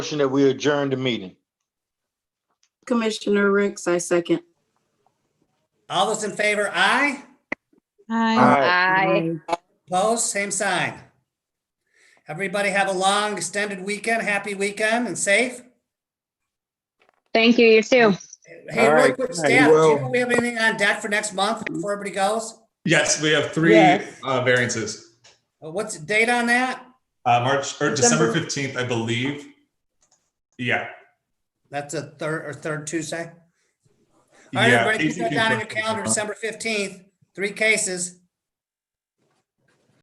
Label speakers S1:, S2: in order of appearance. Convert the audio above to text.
S1: Motion that we adjourn the meeting.
S2: Commissioner Ricks, I second.
S3: All those in favor, aye.
S4: Hi.
S5: Aye.
S3: Opposed, same sign. Everybody have a long extended weekend, happy weekend and safe.
S5: Thank you, you too.
S3: Hey,
S1: All
S3: real
S1: right,
S3: quick,
S1: all right,
S3: staff, do you
S1: well-
S3: know we have anything on deck for next month before everybody goes?
S6: Yes, we have three
S4: Yes.
S6: uh, variances.
S3: Uh, What's the date on that?
S6: Uh, March or December fifteenth, I believe. Yeah.
S3: That's a third or third Tuesday. All right,
S6: Yeah.
S3: everybody, put that
S6: 18th,
S3: down on your
S6: 15th.
S3: calendar, December fifteenth, three cases.